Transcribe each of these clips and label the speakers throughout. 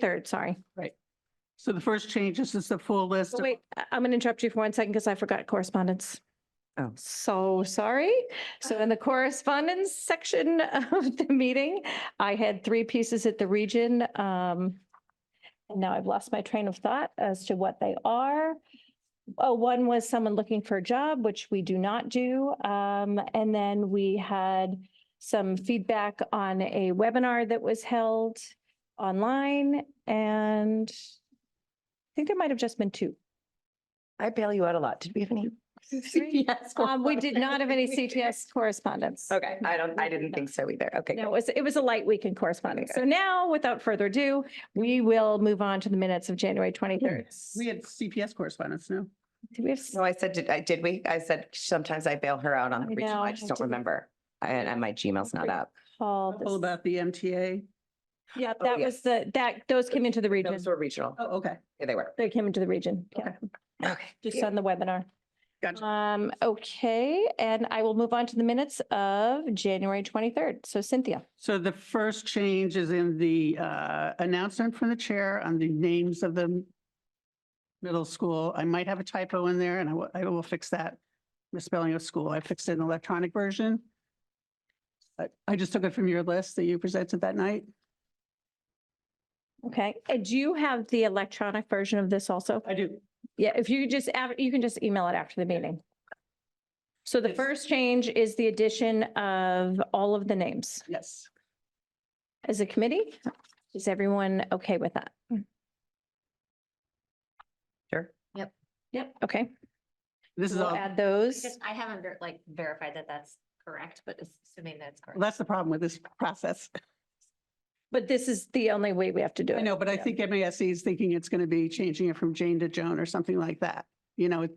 Speaker 1: Third, sorry.
Speaker 2: So the first change is just a full list.
Speaker 1: Oh,
Speaker 2: of-
Speaker 1: Wait, I- I'm going to interrupt you for one second because I forgot correspondence.
Speaker 2: Oh.
Speaker 1: So sorry. So in the correspondence section of the meeting, I had three pieces at the region. um, And now I've lost my train of thought as to what they are. Oh, one was someone looking for a job, which we do not do. Um, And then we had some feedback on a webinar that was held online and I think there might have just been two.
Speaker 3: I bail you out a lot. Did we have any?
Speaker 1: CPS Um, we did not have any CTS correspondence.
Speaker 3: Okay, I don't, I didn't think so either. Okay.
Speaker 1: No, it was, it was a light week in correspondence. So now, without further ado, we will move on to the minutes of January twenty-third.
Speaker 2: We had CPS correspondence, no?
Speaker 1: Do we have, s-
Speaker 3: No, I said, did I, did we? I said, sometimes I bail her out on
Speaker 1: I
Speaker 3: the regional.
Speaker 1: know,
Speaker 3: I
Speaker 1: I
Speaker 3: just don't
Speaker 1: did.
Speaker 3: remember. I- And my Gmail's not up.
Speaker 1: Paul,
Speaker 2: All
Speaker 1: this-
Speaker 2: about the MTA.
Speaker 1: yeah,
Speaker 3: oh,
Speaker 1: that
Speaker 3: yeah.
Speaker 1: was the, that, those came into the region.
Speaker 3: Those were regional.
Speaker 2: Oh, okay.
Speaker 3: Yeah, they were.
Speaker 1: They came into the region, yeah,
Speaker 2: Okay.
Speaker 3: Okay.
Speaker 1: just on the webinar.
Speaker 2: Gotcha.
Speaker 1: Um, okay, and I will move on to the minutes of January twenty-third. So Cynthia,
Speaker 2: So the first change is in the uh, announcement from the chair on the names of the middle school. I might have a typo in there and I will, I will fix that. Misspelling of school. I fixed it in the electronic version. But I just took it from your list that you presented that night.
Speaker 1: okay, and do you have the electronic version of this also?
Speaker 2: I do.
Speaker 1: Yeah, if you just, av- you can just email it after the meeting. So the
Speaker 2: Yes.
Speaker 1: first change is the addition of all of the names
Speaker 2: Yes.
Speaker 1: as a committee. Is everyone okay with that?
Speaker 3: Sure.
Speaker 1: Yep. Okay,
Speaker 2: This is
Speaker 1: we'll
Speaker 2: all,
Speaker 1: add those.
Speaker 4: Because I haven't ver- like verified that that's correct, but assuming that's correct.
Speaker 2: that's the problem with this process.
Speaker 1: But this is the only way we have to do it.
Speaker 2: I know, but I
Speaker 1: Yeah.
Speaker 2: think MASC is thinking it's going to be changing it from Jane to Joan or something like that. You know, it-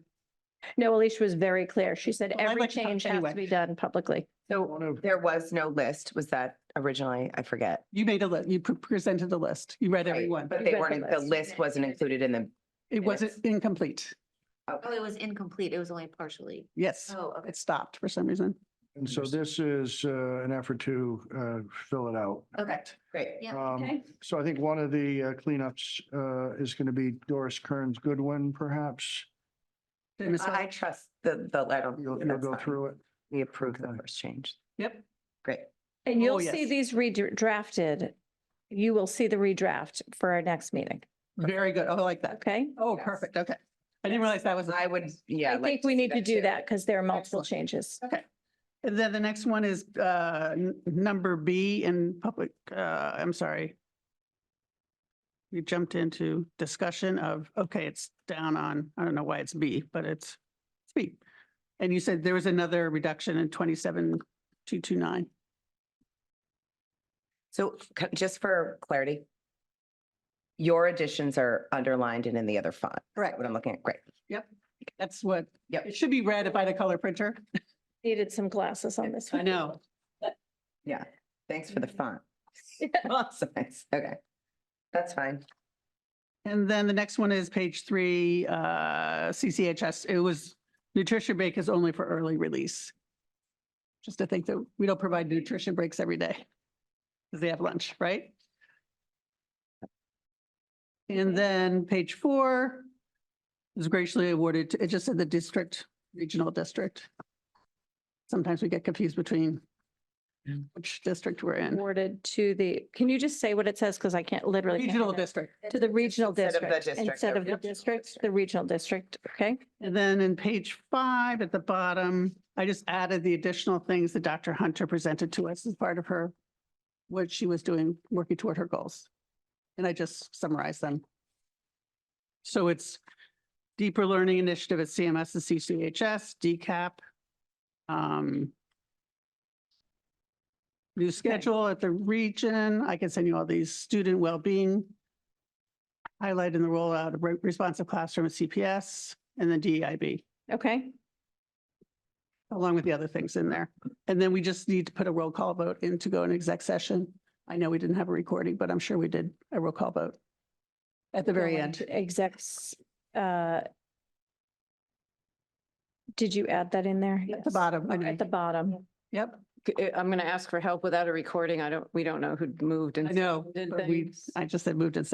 Speaker 1: No, Alicia was very clear. She said
Speaker 2: Well, I'd
Speaker 1: every
Speaker 2: like to talk
Speaker 1: change has
Speaker 2: anyway.
Speaker 1: to be done publicly.
Speaker 3: So there was no list. Was that originally? I forget.
Speaker 2: you made a, li- you pre- presented a list. You read every one.
Speaker 3: But
Speaker 1: You
Speaker 3: they
Speaker 1: read the
Speaker 3: weren't, the
Speaker 1: list.
Speaker 3: list wasn't included in the,
Speaker 2: It wasn't
Speaker 3: Minutes.
Speaker 2: incomplete.
Speaker 4: Oh, it was incomplete. It was only partially.
Speaker 2: Yes,
Speaker 4: Oh, okay.
Speaker 2: it stopped for some reason.
Speaker 5: And so this is uh, an effort to uh, fill it out.
Speaker 4: Okay.
Speaker 3: great.
Speaker 4: Yeah.
Speaker 5: Um,
Speaker 1: Okay.
Speaker 5: So I think one of the uh, cleanups uh, is going to be Doris Kearns Goodwin, perhaps.
Speaker 2: Did I miss
Speaker 3: I I
Speaker 2: one?
Speaker 3: trust the, the letter.
Speaker 5: You'll, you'll go through it.
Speaker 3: We approved the
Speaker 5: Okay.
Speaker 3: first change.
Speaker 2: Yep.
Speaker 3: Great.
Speaker 1: And
Speaker 2: Oh,
Speaker 1: you'll see
Speaker 2: yes.
Speaker 1: these redrafted. You will see the redraft for our next meeting,
Speaker 2: Very good. Oh, I like that.
Speaker 1: okay?
Speaker 2: Oh,
Speaker 3: Yes.
Speaker 2: perfect. Okay. I didn't realize that was.
Speaker 3: I would, yeah.
Speaker 1: I
Speaker 3: like
Speaker 1: think we
Speaker 3: see
Speaker 1: need to do
Speaker 3: too.
Speaker 1: that because there are multiple
Speaker 2: Excellent.
Speaker 1: changes.
Speaker 2: And then the next one is uh, n- number B in public, uh, I'm sorry. We jumped into discussion of, okay, it's down on, I don't know why it's B, but it's it's B. And you said there was another reduction in 27229.
Speaker 3: So c- just for clarity, your additions are underlined and in the other font.
Speaker 2: Correct.
Speaker 3: What I'm looking at, great.
Speaker 2: That's what,
Speaker 3: Yep.
Speaker 2: it should be read if I had a color printer.
Speaker 1: Needed some glasses on this
Speaker 2: I
Speaker 1: one.
Speaker 2: know.
Speaker 3: Thanks for the font.
Speaker 1: Yeah.
Speaker 3: Awesome. Thanks. Okay. That's fine.
Speaker 2: And then the next one is page three, uh, CCHS. It was nutrition break is only for early release. Just to think that we don't provide nutrition breaks every day. Because they have lunch, right? And then page four is graciously awarded, to- it just said the district, regional district. Sometimes we get confused between which district we're in.
Speaker 1: Awarded to the, can you just say what it says? Because I can't literally. can't
Speaker 2: Regional
Speaker 1: remember.
Speaker 2: district.
Speaker 1: To the regional
Speaker 3: Instead of the
Speaker 1: district,
Speaker 3: district,
Speaker 1: instead
Speaker 3: the
Speaker 1: of the
Speaker 3: regional
Speaker 1: district,
Speaker 3: district.
Speaker 1: the regional district, okay?
Speaker 2: And then in page five at the bottom, I just added the additional things that Dr. Hunter presented to us as part of her, what she was doing, working toward her goals. And I just summarized them. So it's deeper learning initiative at CMS and CCHS, DCAP. um, New schedule at the region. I can send you all these student well-being highlighting the rollout of re- responsive classroom at CPS and then E DEIB,
Speaker 1: Okay,
Speaker 2: along with the other things in there. And then we just need to put a roll call vote in to go in exec session. I know we didn't have a recording, but I'm sure we did a roll call vote at the very
Speaker 1: Going
Speaker 2: end.
Speaker 1: to Execs, uh, did you add that in there?
Speaker 2: At the
Speaker 1: Yes.
Speaker 2: bottom, I
Speaker 1: Or At
Speaker 2: mean,
Speaker 1: the bottom.
Speaker 2: yep,
Speaker 6: c- eh, I'm going to ask for help without a recording. I don't, we don't know who moved and.
Speaker 2: I know,
Speaker 6: did
Speaker 2: but we,
Speaker 6: things.
Speaker 2: I just said moved and